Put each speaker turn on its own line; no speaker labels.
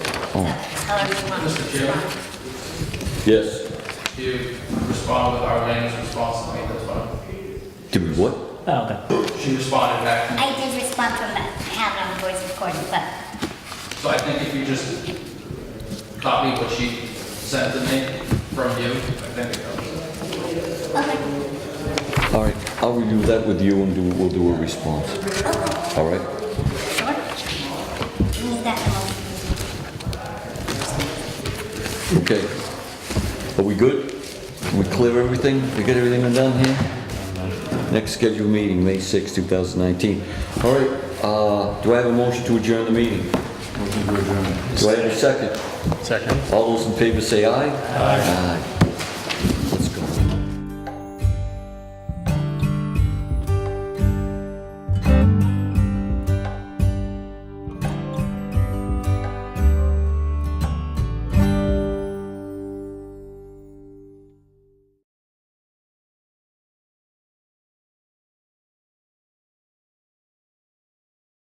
however you want.
Mr. Chairman,
Yes.
to respond with our language responsibly, that's fine.
Do what?
Oh, okay.
She responded back to me.
I did respond from that, I have it on voice recording, but
So I think if you just copy what she sent to me from you, I think it covers it.
All right, I'll review that with you and do, we'll do a response. All right?
sure. Need that motion.
Okay. Are we good? We clear everything? We get everything done here? Next scheduled meeting, May 6, 2019. All right, uh, do I have a motion to adjourn the meeting? Do I have a second?
Second.
All those in favor say aye? Aye.